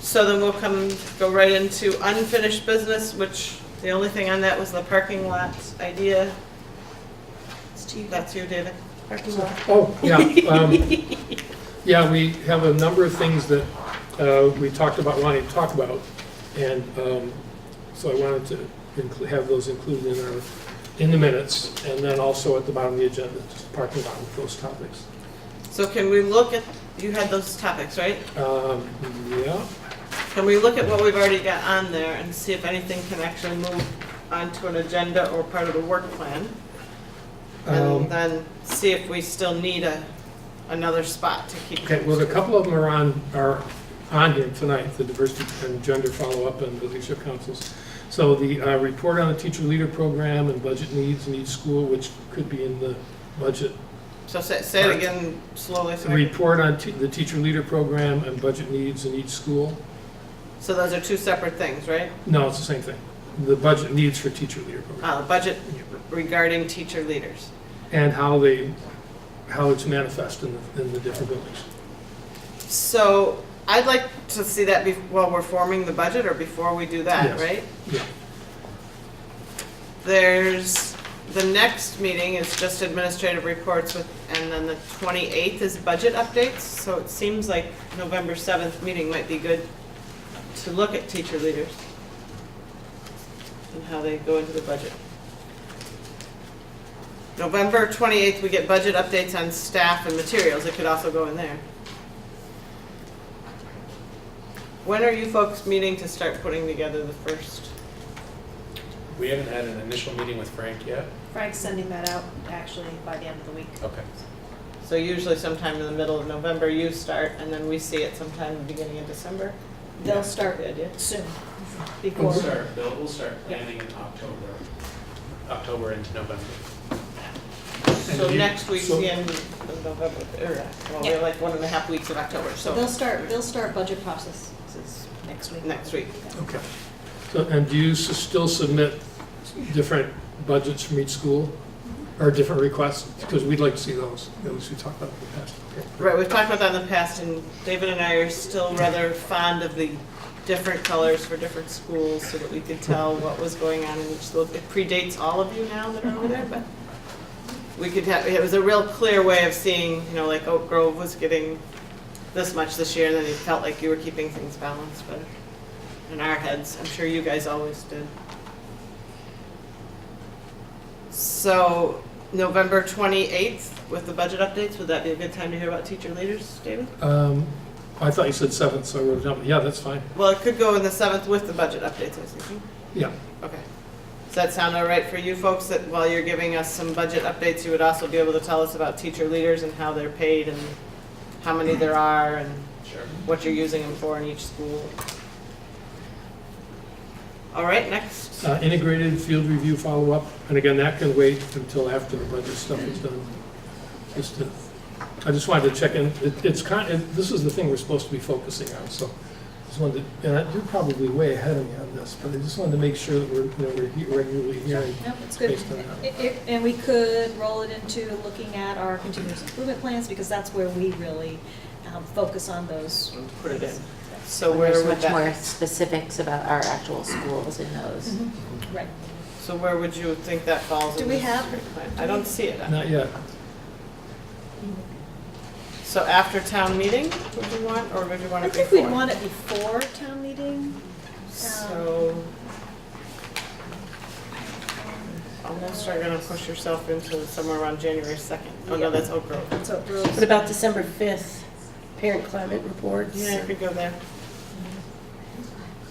So then we'll come, go right into unfinished business, which the only thing on that was the parking lot idea. It's to you. That's you, David. Parking lot. Oh, yeah. um, Yeah, we have a number of things that uh, we talked about, wanting to talk about, and um, so I wanted to inclu- have those included in our, in the minutes, and then also at the bottom of the agenda, just parking lot with those topics. So can we look at, you had those topics, right? Um, Yeah, Can we look at what we've already got on there and see if anything can actually move onto an agenda or part of the work plan? Um, And then see if we still need a, another spot to keep. okay, well, a couple of them are on, are on here tonight, the diversity and gender follow-up and the leadership councils. So the uh, report on the teacher leader program and budget needs in each school, which could be in the budget So say, say it again slowly. so The I can- report on te- the teacher leader program and budget needs in each school? So those are two separate things, right? No, it's the same thing. The budget needs for teacher leader program. Uh, budget regarding teacher leaders. And how they, how it's manifest in the, in the different buildings. So I'd like to see that be, while we're forming the budget or before we do that, Yes. right? Yeah. There's, the next meeting is just administrative reports with, and then the 28th is budget updates. So it seems like November 7th meeting might be good to look at teacher leaders and how they go into the budget. November 28th, we get budget updates on staff and materials. It could also go in there. When are you folks meeting to start putting together the first? We haven't had an initial meeting with Frank yet. Frank's sending that out actually by the end of the week. Okay. So usually sometime in the middle of November you start, and then we see it sometime in the beginning of December. They'll start The idea. soon, We'll before. start, Bill, we'll start planning in October, October into November. So you- next week's so- the end of November, or, well, we're Yeah. like one and a half weeks of October, So they'll so start, they'll start budget processes next week. next week. Okay. So, and do you s- still submit different budgets from each school? Or different requests? Because we'd like to see those, at least we talked about in the past. Okay. Right, we've talked about that in the past, and David and I are still rather fond of the different colors for different schools, so that we could tell what was going on in each school. It predates all of you now that are over there, but we could have, it was a real clear way of seeing, you know, like Oak Grove was getting this much this year, and then it felt like you were keeping things balanced, but in our heads, I'm sure you guys always did. So, November 28th with the budget updates, would that be a good time to hear about teacher leaders, David? Um, I thought you said seventh, so I wrote it down. Yeah, that's fine. Well, it could go in the 7th with the budget updates, I was thinking. Yeah. Okay. Does that sound all right for you folks, that while you're giving us some budget updates, you would also be able to tell us about teacher leaders and how they're paid and how many there are and Sure. what you're using them for in each school? All right, next. Uh, Integrated field review follow-up, and again, that can wait until after the budget stuff is done. Just to, I just wanted to check in, It- it's kind, it- this is the thing we're supposed to be focusing on, so just wanted to, and I- you're probably way ahead of me on this, but I just wanted to make sure that we're, you know, we're he- regularly hearing. No, it's good. Based on that. It- it- And we could roll it into looking at our continuous improvement plans, because that's where we really um, focus on those. Put it in. So When where There's would much more that, specifics about our actual schools and those. Right. so where would you think that falls? in Do we this have- plan? I don't see it. Not yet. So after town meeting, would you want, or would you want I it think before? we'd want it before town meeting. So. Almost are gonna push yourself into somewhere around January second. Oh, Yeah. no, that's Oak Grove. So it really- What about December 5th, parent climate reports? Yeah, you could go there.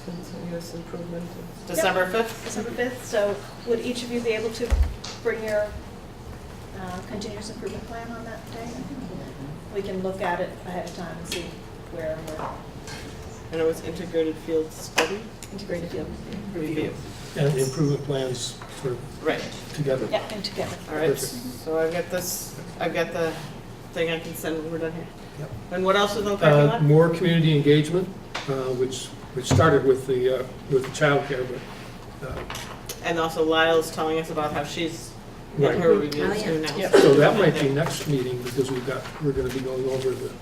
Continuous improvement. December fifth? December 5th, so would each of you be able to bring your uh, continuous improvement plan on that day? We can look at it ahead of time and see where we're And it was integrated field study integrated field. review. And the improvement plans for, Right, together. Yeah, and together. all right. Perfect. So I've got this, I've got the thing I can send when we're done here. Yep. And what else is on the parking Uh, lot? More community engagement, uh, which, which started with the, uh, with the childcare, but, uh, And also Lyle's telling us about how she's, in right. her reviews Oh, yeah. too now. Yep. So that might be next meeting, because we've got, we're gonna be going over the